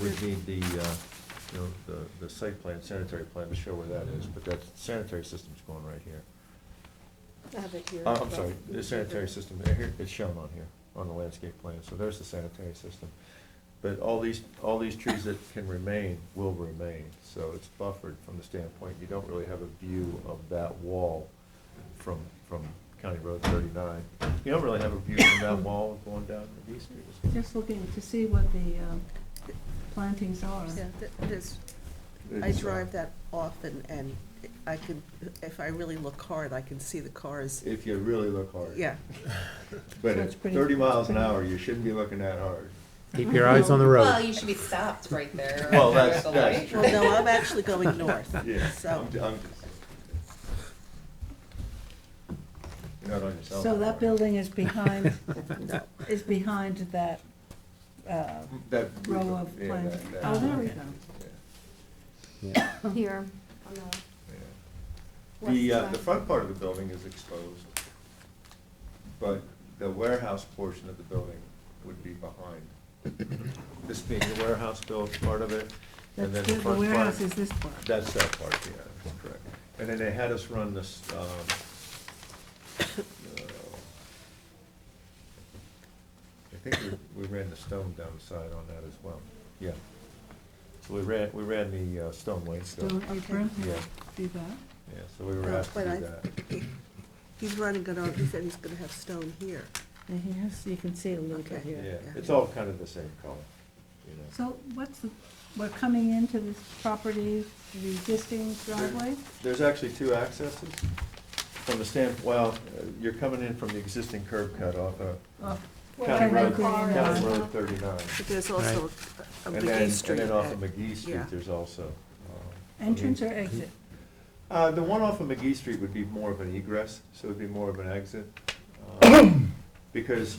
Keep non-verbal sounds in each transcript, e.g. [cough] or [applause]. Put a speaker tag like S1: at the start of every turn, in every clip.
S1: would need the, uh, you know, the, the site plan, sanitary plan to show where that is, but that sanitary system's going right here.
S2: I have it here.
S1: Uh, I'm sorry, the sanitary system, uh, here, it's shown on here, on the landscape plan, so there's the sanitary system. But all these, all these trees that can remain will remain, so it's buffered from the standpoint, you don't really have a view of that wall from, from County Road thirty-nine. You don't really have a view from that wall going down to D Street.
S3: Just looking to see what the um, plantings are.
S2: Yeah, th- this,
S1: It's,
S2: I
S1: uh,
S2: drive that often, and I can, if I really look hard, I can see the cars,
S1: If you really look hard.
S2: yeah.
S1: But
S3: So
S1: at
S3: it's pretty-
S1: thirty miles an
S3: it's pretty-
S1: hour, you shouldn't be looking that hard.
S4: Keep your eyes on the
S5: Well,
S4: road.
S5: you should be stopped right there.
S1: Well,
S5: at
S1: that's-
S5: the
S1: that's
S5: light.
S1: true.
S2: Well, no, I'm
S1: [laughs]
S2: actually going north,
S1: Yeah,
S2: so,
S1: I'm- I'm- You're not on your cell
S3: So
S1: phone,
S3: that
S1: right?
S3: building is [laughs] behind,
S1: [laughs]
S2: no.
S3: is behind that uh,
S1: That.
S3: row of
S1: yeah,
S3: plantings.
S1: that- that-
S3: Oh, there we
S1: yeah,
S3: go.
S4: Yeah.
S6: Here, on the
S1: yeah.
S6: west
S1: The, uh,
S6: side.
S1: the front part of the building is exposed, but the warehouse portion of the building would be behind. This being the warehouse built part of it, and then
S3: That's
S1: the
S3: good,
S1: front
S3: the
S1: part.
S3: warehouse is this part.
S1: That's that part, yeah, that's correct. And then they had us run this, um, uh, I think we, we ran the stone down the side on that as well, yeah. So we ran, we ran the, uh, stone Oh,
S3: Still,
S1: wainscot,
S3: you bring,
S1: yeah,
S3: do that?
S1: yeah, so we were
S2: Uh,
S1: asked to
S2: but I-
S1: do that.
S2: He's running it on, he said he's gonna have stone here.
S3: And he has, you can see a little bit
S2: Okay.
S3: here.
S1: Yeah,
S2: yeah.
S1: it's all kind of the same color, you know.
S3: So what's the, we're coming into this property, the existing driveway?
S1: There's actually two accesses from the stand, well, uh, you're coming in from the existing curb cut off of
S3: Oh,
S1: County
S3: County
S1: Road,
S3: Road
S1: County
S3: 39.
S1: Road thirty-nine.
S2: But there's also a a
S1: And then,
S2: McGee
S1: and
S2: Street.
S1: then off of
S2: that-
S1: McGee Street,
S2: yeah.
S1: there's also. uh,
S3: Entrance or exit?
S1: Uh, the one off of McGee Street would be more of an egress, so it'd be more of an exit. um, [coughs] Because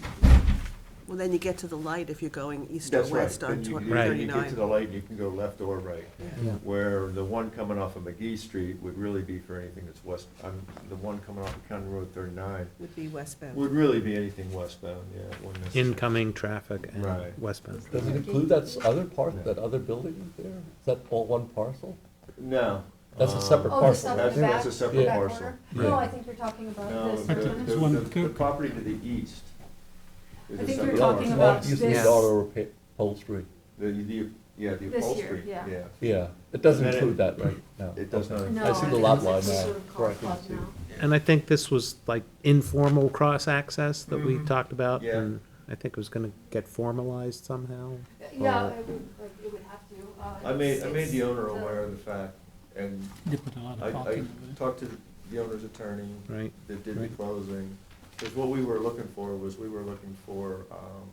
S2: Well, then you get to the light if you're going east or
S1: that's right,
S2: west
S1: then
S2: on
S1: you,
S2: tw-
S1: you- then you get to the
S2: thirty-nine.
S1: light, you can go left or right.
S2: Yeah.
S1: Where the one coming off of McGee Street would really be for anything that's west, um, the one coming off of County Road thirty-nine
S2: Would be westbound.
S1: would really be anything westbound, yeah. it wouldn't necessarily-
S4: Incoming traffic and
S1: Right.
S4: westbound.
S7: Does it include that s- other
S1: Yeah.
S7: part, that other building there? Is that all one parcel?
S1: No.
S7: That's a
S1: um,
S7: separate
S6: Oh,
S7: parcel.
S6: this other
S1: I think that's
S6: back-
S1: a separate
S6: back
S1: parcel.
S6: corner?
S7: Yeah.
S6: No, I think you're talking
S1: No,
S6: about
S1: the,
S6: this.
S1: the,
S8: one
S1: the- the
S8: coop.
S1: property to the east. is
S6: I
S1: a
S6: think
S1: separate
S6: you're talking
S1: parcel.
S6: about
S7: It's not used
S6: this-
S7: as auto repair- upholstery,
S1: The, the, yeah, the
S6: This year,
S1: upholstery,
S6: yeah.
S1: yeah.
S7: yeah. It does
S1: And then it-
S7: include that right now.
S1: It does not.
S6: No,
S7: I see the
S6: think
S7: lot
S6: it's
S7: line
S6: some
S7: now.
S6: sort of car
S7: Right, I can
S6: club
S7: see.
S6: now.
S1: Uh,
S4: And I think this was like informal cross-access that we
S8: Mhm.
S4: talked about.
S1: Mm-hmm. Yeah.
S4: And I think it was gonna get formalized somehow.
S6: Yeah,
S4: Or-
S6: it would, like, it would have to. uh,
S1: uh, I made, I
S6: it's-
S1: made the owner
S6: it's, uh,
S1: aware of the fact, and
S8: They put a lot
S1: I,
S8: of thought
S1: I
S8: into it.
S1: talked to the owner's attorney
S4: Right.
S1: that did the
S4: Right.
S1: closing. Because what we were looking for was, we were looking for, um,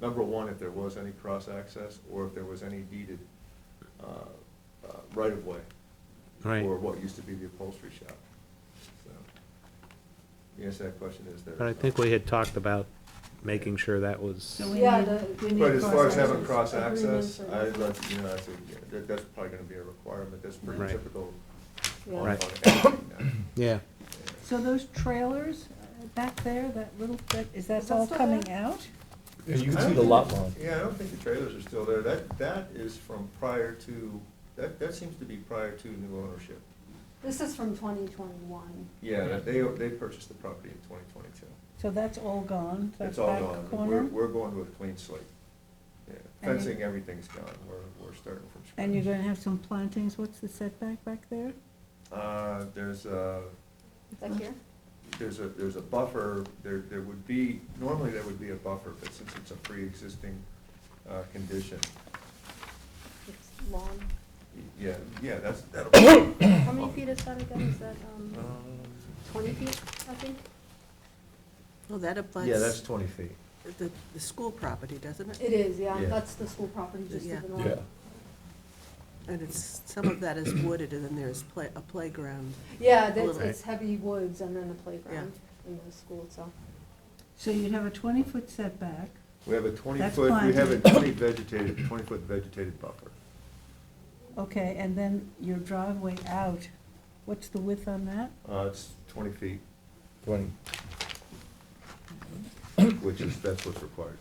S1: number one, if there was any cross-access, or if there was any deeded, uh, uh, right-of-way.
S4: Right.
S1: For what used to be the upholstery shop, so. The answer to that question is there.
S4: But I
S1: is
S4: think
S1: not.
S4: we had talked about making sure that was,
S3: So we
S6: Yeah,
S3: need-
S6: the-
S3: we need
S1: But as far as having
S6: Agreement
S1: cross-access,
S6: for-
S1: I'd like, you know, I think, yeah, that, that's probably gonna be a requirement, that's pretty
S4: Right.
S1: typical on,
S6: Yeah.
S1: on
S4: Right.
S1: everything now.
S4: yeah.
S3: So those trailers uh, back there, that little, bit is that
S6: Is that
S3: all
S6: still
S3: coming
S6: there?
S3: out?
S7: You
S1: I
S7: can
S1: don't
S7: see the
S1: think-
S7: lot line.
S1: Yeah, I don't think the trailers are still there, that, that is from prior to, that, that seems to be prior to new ownership.
S6: This is from twenty twenty-one.
S1: Yeah, that they, they purchased the property in twenty twenty-two.
S3: So that's all gone, that
S1: It's all
S3: back
S1: gone, we're,
S3: corner?
S1: we're going with a clean slate. Yeah,
S3: And you-
S1: fencing, everything's gone, we're, we're starting from scratch.
S3: And you're gonna have some plantings, what's the setback back there?
S1: Uh, there's a,
S6: Is that here?
S1: there's a, there's a buffer, there, there would be, normally there would be a buffer, but since it's a pre-existing, uh, condition,
S6: It's lawn.
S1: y- yeah, yeah, that's, [coughs] that'll. be-
S6: How many feet is that again? Is that, um,
S1: Um,
S6: twenty feet, I think?
S2: Well, that
S1: Yeah, that's
S2: applies
S1: twenty feet.
S2: the, the school property, doesn't it?
S6: It is, yeah.
S1: Yeah.
S6: That's the school property just to
S2: Yeah.
S6: the north.
S7: Yeah.
S2: And it's, some of that is wooded, and then there's play, a playground.
S6: Yeah,
S2: little
S6: that's,
S2: bit.
S6: it's heavy woods and then the playground and the school itself.
S3: So you'd have a twenty-foot setback,
S1: We have a twenty
S3: That's
S1: foot, we
S3: fine.
S1: have a twenty vegetated, twenty foot vegetated buffer.
S3: okay, and then your driveway out, what's the width on that?
S1: Uh, it's twenty feet,
S7: Twenty.
S1: which is, that's what's required.